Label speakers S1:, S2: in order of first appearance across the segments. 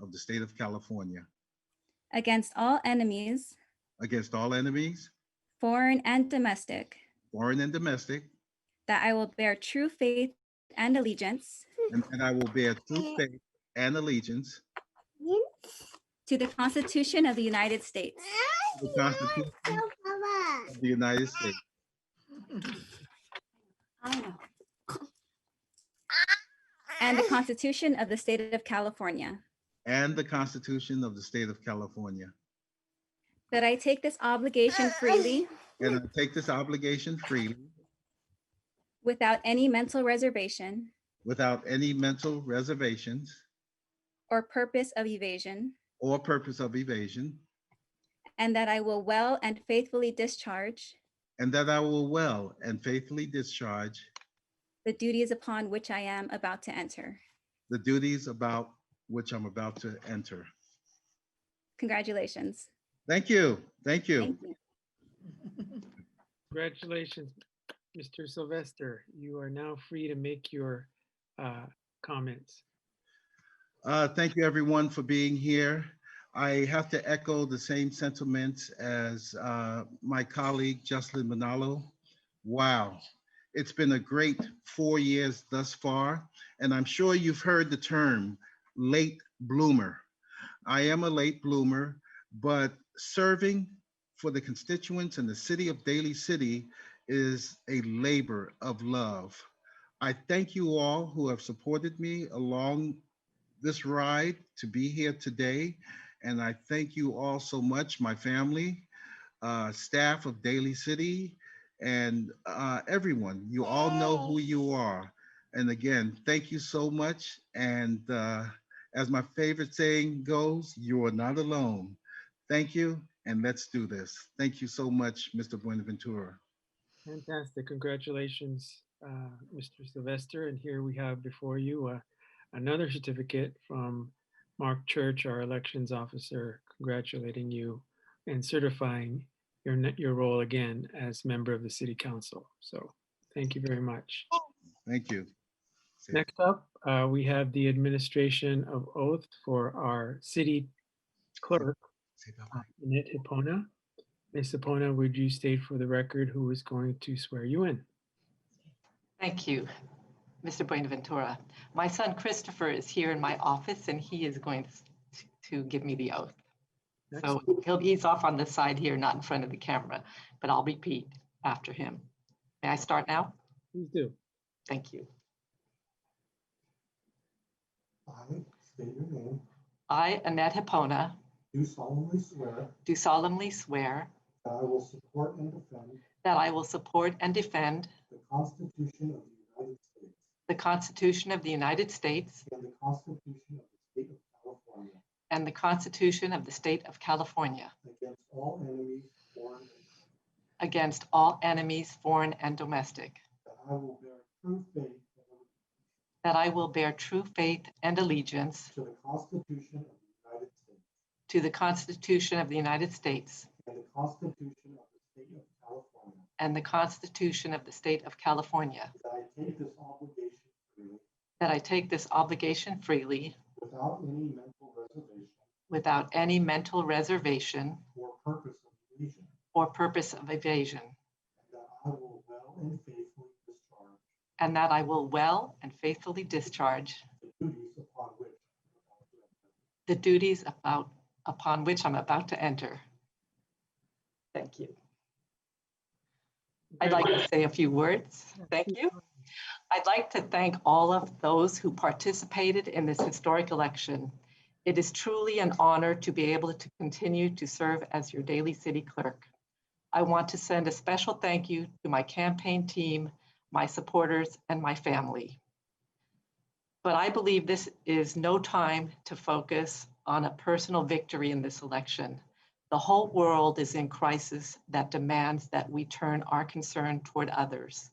S1: of the state of California
S2: against all enemies,
S1: against all enemies,
S2: foreign and domestic,
S1: foreign and domestic,
S2: that I will bear true faith and allegiance
S1: and that I will bear true faith and allegiance
S2: to the Constitution of the United States
S1: to the Constitution of the United States
S2: and the Constitution of the State of California,
S1: and the Constitution of the state of California.
S2: that I take this obligation freely
S1: And I take this obligation freely
S2: without any mental reservation
S1: without any mental reservations
S2: or purpose of evasion,
S1: or purpose of evasion,
S2: and that I will well and faithfully discharge
S1: and that I will well and faithfully discharge
S2: the duties upon which I am about to enter.
S1: the duties about which I'm about to enter.
S2: Congratulations.
S1: Thank you, thank you.
S2: Thank you.
S3: Congratulations, Mr. Sylvester. You are now free to make your uh, comments.
S1: Uh, Thank you, everyone, for being here. I have to echo the same sentiments as uh, my colleague Jocelyn Manalo. Wow, it's been a great four years thus far, and I'm sure you've heard the term late bloomer. I am a late bloomer, but serving for the constituents in the city of Daly City is a labor of love. I thank you all who have supported me along this ride to be here today. And I thank you all so much, my family, uh, staff of Daily City, and uh, everyone. You all know who you are. And again, thank you so much. And uh, as my favorite saying goes, you are not alone. Thank you, and let's do this. Thank you so much, Mr. Buenaventura.
S3: Fantastic. Congratulations, uh, Mr. Sylvester. And here we have before you uh, another certificate from Mark Church, our elections officer, congratulating you and certifying your, ne- your role again as member of the city council. So thank you very much.
S1: Thank you.
S3: Next up, uh, we have the administration of oath for our city clerk, Annette Hipona. Ms. Hipona, would you state for the record who is going to swear you in?
S4: Thank you, Mr. Buenaventura. My son Christopher is here in my office and he is going to- to give me the oath. So he'll, he's off on the side here, not in front of the camera, but I'll repeat after him. May I start now?
S3: Please do.
S4: Thank you.
S5: I state your name,
S4: I, Annette Hipona,
S5: do solemnly swear
S4: do solemnly swear
S5: that I will support and defend
S4: that I will support and defend
S5: the Constitution of the United States
S4: the Constitution of the United States
S5: and the Constitution of the State of California
S4: and the Constitution of the State of California
S5: against all enemies, foreign and domestic,
S4: against all enemies, foreign and domestic,
S5: that I will bear true faith and allegiance
S4: that I will bear true faith and allegiance
S5: to the Constitution of the United States
S4: To the Constitution of the United States
S5: and the Constitution of the State of California,
S4: and the Constitution of the State of California.
S5: that I take this obligation freely
S4: That I take this obligation freely
S5: without any mental reservation
S4: without any mental reservation
S5: or purpose of evasion,
S4: or purpose of evasion.
S5: and that I will well and faithfully discharge
S4: And that I will well and faithfully discharge
S5: the duties upon which I am about to
S4: the duties about, upon which I'm about
S5: enter.
S4: to enter. Thank you. I'd like to say a few words. Thank you. I'd like to thank all of those who participated in this historic election. It is truly an honor to be able to continue to serve as your daily city clerk. I want to send a special thank you to my campaign team, my supporters, and my family. But I believe this is no time to focus on a personal victory in this election. The whole world is in crisis that demands that we turn our concern toward others.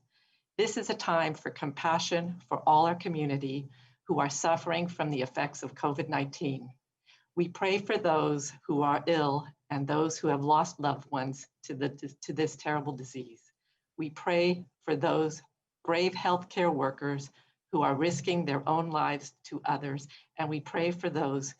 S4: This is a time for compassion for all our community who are suffering from the effects of COVID 19. We pray for those who are ill and those who have lost loved ones to, the, to this terrible disease. We pray for those brave healthcare workers who are risking their own lives to others, and we pray for those